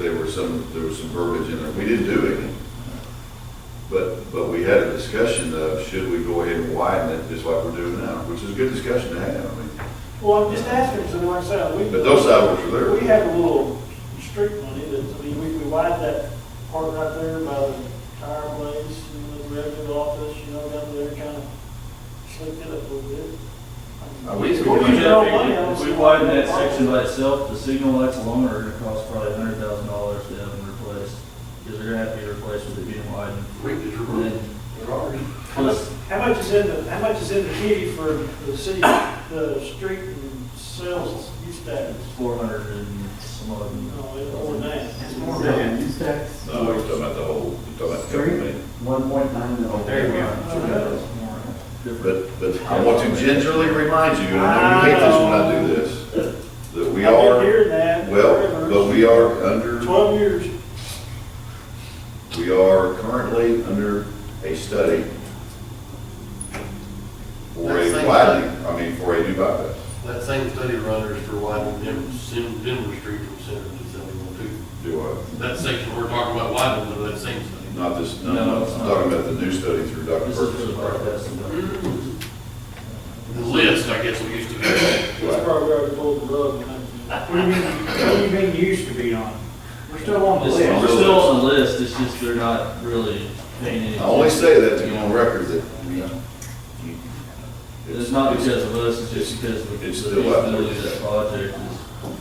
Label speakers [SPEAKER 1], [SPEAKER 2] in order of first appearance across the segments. [SPEAKER 1] there were some, there was some verbiage in there. We didn't do anything. But, but we had a discussion of, should we go ahead and widen it, just like we're doing now, which is a good discussion to have, I mean.
[SPEAKER 2] Well, I'm just asking, because like I said, we.
[SPEAKER 1] But those sidewalks are there.
[SPEAKER 2] We have a little street money that, I mean, we, we widened that part right there by the tire place, and the revenue office, you know, down there, kind of slicked it up a little bit. I mean,
[SPEAKER 1] Uh, We used to
[SPEAKER 2] we're
[SPEAKER 1] do
[SPEAKER 2] using our money on
[SPEAKER 3] If we
[SPEAKER 2] some-
[SPEAKER 3] widen that section by itself, the signal lights alone are gonna cost probably a hundred thousand dollars to have them replaced. Because they're gonna have to be replaced with it being widened.
[SPEAKER 4] We just
[SPEAKER 3] And then,
[SPEAKER 2] How much-
[SPEAKER 3] plus,
[SPEAKER 2] How much is in the, how much is in the kitty for the city, the street and sales use tax?
[SPEAKER 3] four hundred and some of them.
[SPEAKER 2] No, it's more than that.
[SPEAKER 5] It's more than use tax.
[SPEAKER 1] No, we're talking about the whole, we're talking about the company.
[SPEAKER 5] One point nine million. There you
[SPEAKER 2] go.
[SPEAKER 3] Different.
[SPEAKER 1] But, but I want to gingerly remind you, and I know you hate this when I do this, that we
[SPEAKER 2] I've been
[SPEAKER 1] are,
[SPEAKER 2] hearing that.
[SPEAKER 1] well, but
[SPEAKER 2] forever.
[SPEAKER 1] we are under,
[SPEAKER 2] Twelve years.
[SPEAKER 1] we are currently under a study for a widening, I mean, for a new bypass.
[SPEAKER 4] That same study runners for widening Denver, Sim- Denver Street from Center to seventy-one two.
[SPEAKER 1] Do I,
[SPEAKER 4] That section we're talking about widening, though, that same study.
[SPEAKER 1] not this, no, no, I'm talking about the new study through Dr.
[SPEAKER 3] This is for
[SPEAKER 1] Perkins.
[SPEAKER 3] the bypass and the-
[SPEAKER 4] The list, I guess, we used to have.
[SPEAKER 2] That's
[SPEAKER 1] Right.
[SPEAKER 2] probably already pulled the rug. and I-
[SPEAKER 5] What do you mean, what do you mean used to be on? We're still on the
[SPEAKER 3] It's-
[SPEAKER 5] list.
[SPEAKER 3] We're still on the list, it's just they're not really paying any.
[SPEAKER 1] I only say that to
[SPEAKER 3] attention.
[SPEAKER 1] you on record that, you know. you-
[SPEAKER 3] It's not because of us, it's just because of the
[SPEAKER 1] It's still up.
[SPEAKER 3] feasibility of that project. is-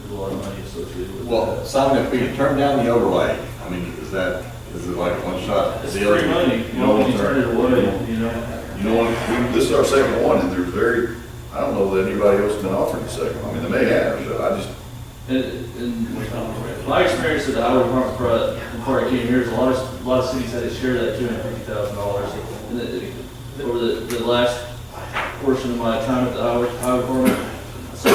[SPEAKER 3] There's a lot of money associated with
[SPEAKER 6] Well,
[SPEAKER 3] that.
[SPEAKER 6] Simon, if we could turn down the overlay, I mean, is that, is it like one shot?
[SPEAKER 3] It's
[SPEAKER 6] deal?
[SPEAKER 3] free money, you know, when you turn it away, you know.
[SPEAKER 1] You know, we- this is our second one, and there's very, I don't know that anybody else has been offered a second. I mean, they may have, but I just,
[SPEAKER 3] And, and my experience at the Iowa Department of Pro- before I came here is a lot of, a lot of cities had to share that two hundred fifty thousand dollars. And it- it- over the, the last portion of my time at the Iowa, Iowa Department, so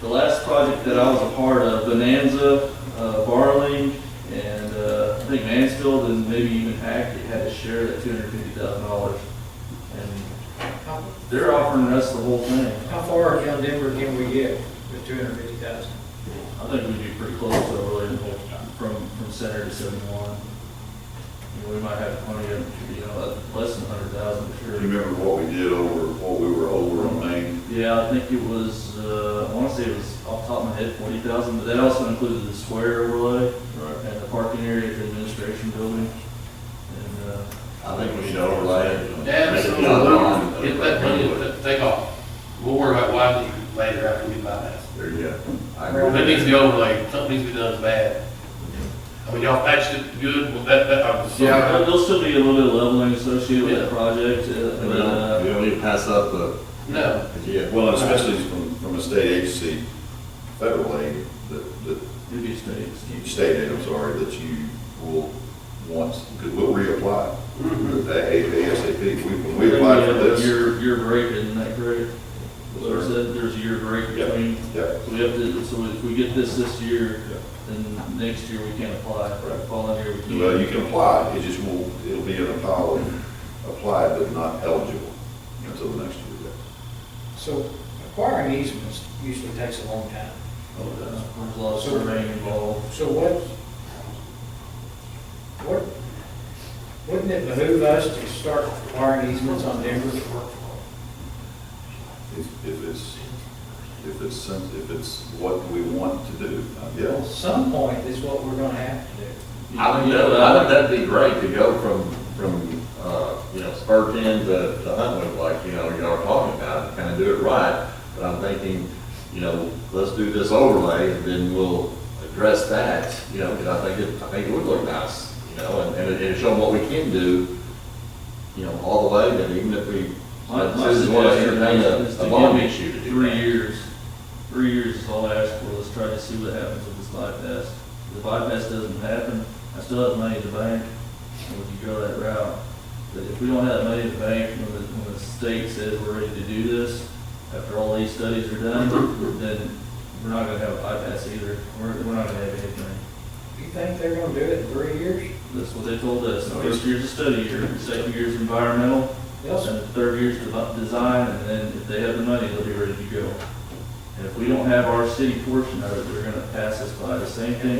[SPEAKER 3] the last project that I was a part of, Bonanza, uh, Barling, and, uh, I think Mansfield and maybe even Hackett had to share that two hundred fifty thousand dollars. And they're offering us the whole thing.
[SPEAKER 7] How far around Denver can we get with two hundred fifty thousand?
[SPEAKER 3] I think we'd be pretty close to really from, from center to seventy-one. You know, we might have plenty of, you know, less than hundred thousand for
[SPEAKER 1] you
[SPEAKER 3] sure.
[SPEAKER 1] remember what we did over, what we were over on Main?
[SPEAKER 3] Yeah, I think it was, uh, I wanna say it was off the top of my head, forty thousand, but that also included the square overlay
[SPEAKER 1] Right.
[SPEAKER 3] and the parking area for the administration building. And, uh,
[SPEAKER 6] I think we need to overlay it.
[SPEAKER 4] Absolutely, get that money, and take off. We'll worry about widening later after we bypass.
[SPEAKER 6] There you go. I agree.
[SPEAKER 4] That needs to be overlaid, something needs to be done bad. I mean, y'all patched it good, well, that, that, I'm sorry.
[SPEAKER 3] yeah, there'll- there'll still be a little bit of leveling associated with
[SPEAKER 4] Yeah.
[SPEAKER 3] that project, uh,
[SPEAKER 6] We
[SPEAKER 3] and, uh,
[SPEAKER 6] don't, we don't need to pass up the,
[SPEAKER 4] No,
[SPEAKER 6] yeah.
[SPEAKER 1] Well, especially from, from a state agency, federal aid, that, that,
[SPEAKER 3] it'd be a state scheme.
[SPEAKER 1] state aid, I'm sorry, that you will want, because we'll reapply.
[SPEAKER 3] Mm-hmm.
[SPEAKER 1] That ASAP, we, when we apply for this.
[SPEAKER 3] Year, year break, isn't that correct? There's, a- there's a year break
[SPEAKER 1] Yeah.
[SPEAKER 3] between,
[SPEAKER 1] Yeah,
[SPEAKER 3] so we have to, so if we get this this year,
[SPEAKER 1] Yeah.
[SPEAKER 3] then next year we can't apply,
[SPEAKER 1] Right.
[SPEAKER 3] following year we
[SPEAKER 1] well, you
[SPEAKER 3] can.
[SPEAKER 1] can apply, it just will, it'll be in a pile of applied but not eligible until the next year.
[SPEAKER 7] So acquiring easements usually takes a long time.
[SPEAKER 3] Oh, yeah. There's a lot of surveying involved.
[SPEAKER 7] So what, what, wouldn't it behoove us to start acquiring easements on Denver?
[SPEAKER 1] If, if it's, if it's, sen- if it's what we want to do, uh,
[SPEAKER 7] At
[SPEAKER 1] yes.
[SPEAKER 7] some point is what we're gonna have to do.
[SPEAKER 6] I think that, I think that'd be great to go from, from, uh, you know, Spurgeon to, to Huntwood, like, you know, y'all are talking about, and kind of do it right. But I'm thinking, you know, let's do this overlay and then we'll address that, you know, because I think it, I think it would look nice, you know, and, and it- and show them what we can do, you know, all the way, and even if we,
[SPEAKER 3] My, my
[SPEAKER 6] this is what I
[SPEAKER 3] suggestion
[SPEAKER 6] entertain
[SPEAKER 3] is is
[SPEAKER 6] a,
[SPEAKER 3] to
[SPEAKER 6] a bond
[SPEAKER 3] give
[SPEAKER 6] issue to
[SPEAKER 3] it
[SPEAKER 6] do
[SPEAKER 3] three
[SPEAKER 6] that.
[SPEAKER 3] years. Three years is all I ask for, let's try to see what happens with this bypass. If the bypass doesn't happen, I still have money in the bank, and we can go that route. But if we don't have money in the bank, when the, when the state says we're ready to do this, after all these studies are done, then we're not gonna have a bypass either, we're, we're not gonna have anything.
[SPEAKER 7] You think they're gonna do it in three years?
[SPEAKER 3] That's what they told us, the first year's a study year, the second year's environmental,
[SPEAKER 7] Yes.
[SPEAKER 3] and the third year's dev- design, and then if they have the money, they'll be ready to go. And if we don't have our city portion of it, they're gonna pass us by, the same thing